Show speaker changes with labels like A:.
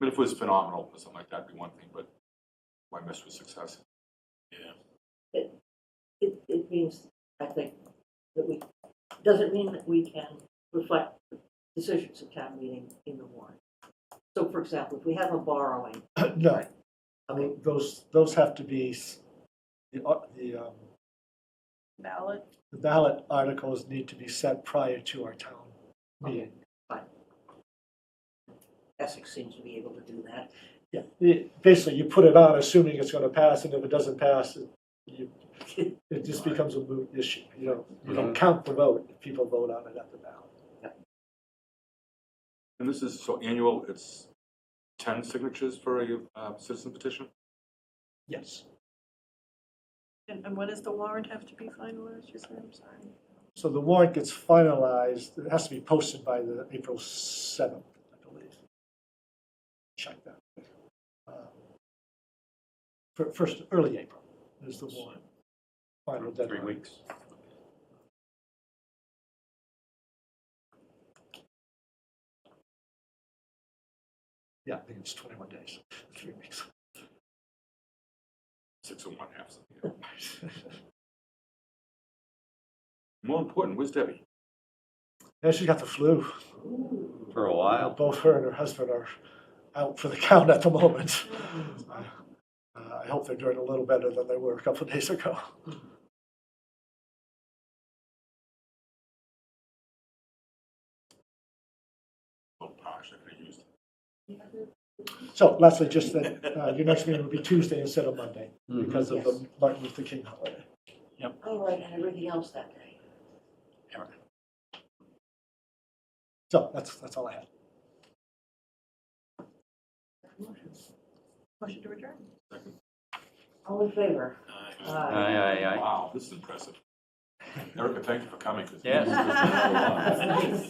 A: But if it was phenomenal or something like that, would be one thing, but why mess with success?
B: It, it means, I think, that we, doesn't mean that we can reflect decisions of town meeting in the warrant. So for example, if we have a borrowing,
C: No, I
B: okay,
C: mean, those, those have to be, s- the, ar- the, um,
D: Valid.
C: the ballot articles need to be set prior to our town meeting.
B: Essex seems to be able to do that.
C: Yeah, the- basically, you put it on assuming it's gonna pass, and if it doesn't pass, it- you, it just becomes a moot issue. You don't, you don't count the vote, if people vote on it at the ballot.
A: And this is, so annual, it's 10 signatures for a uh, citizen petition?
C: Yes.
D: And, and when does the warrant have to be finalized, you said, I'm sorry?
C: So the warrant gets finalized, it has to be posted by the April 7th, I believe. Check that. Uh, fir- First, early April is the warrant. Final
A: Three
C: deadline.
A: weeks.
C: Yeah, I think it's 21 days, three weeks.
A: Six and one half. something, yeah. More important, where's Debbie?
C: Now she's got the flu.
E: for a while.
C: Both her and her husband are out for the count at the moment. Uh, I hope they're doing a little better than they were a couple of days ago.
A: Oh, gosh, I could have used
C: So lastly, just that uh, your next meeting will be Tuesday instead of Monday
E: Mhm.
C: because of the Martin Luther King holiday.
B: All Oh, right, and everything else that day.
C: So that's, that's all I had.
D: Motion to adjourn.
B: All in favor?
E: Aye,
B: Aye.
E: aye, aye.
A: Wow, this is impressive. Erica, thank you for coming. 'cause
E: Yes.
A: this has been so long.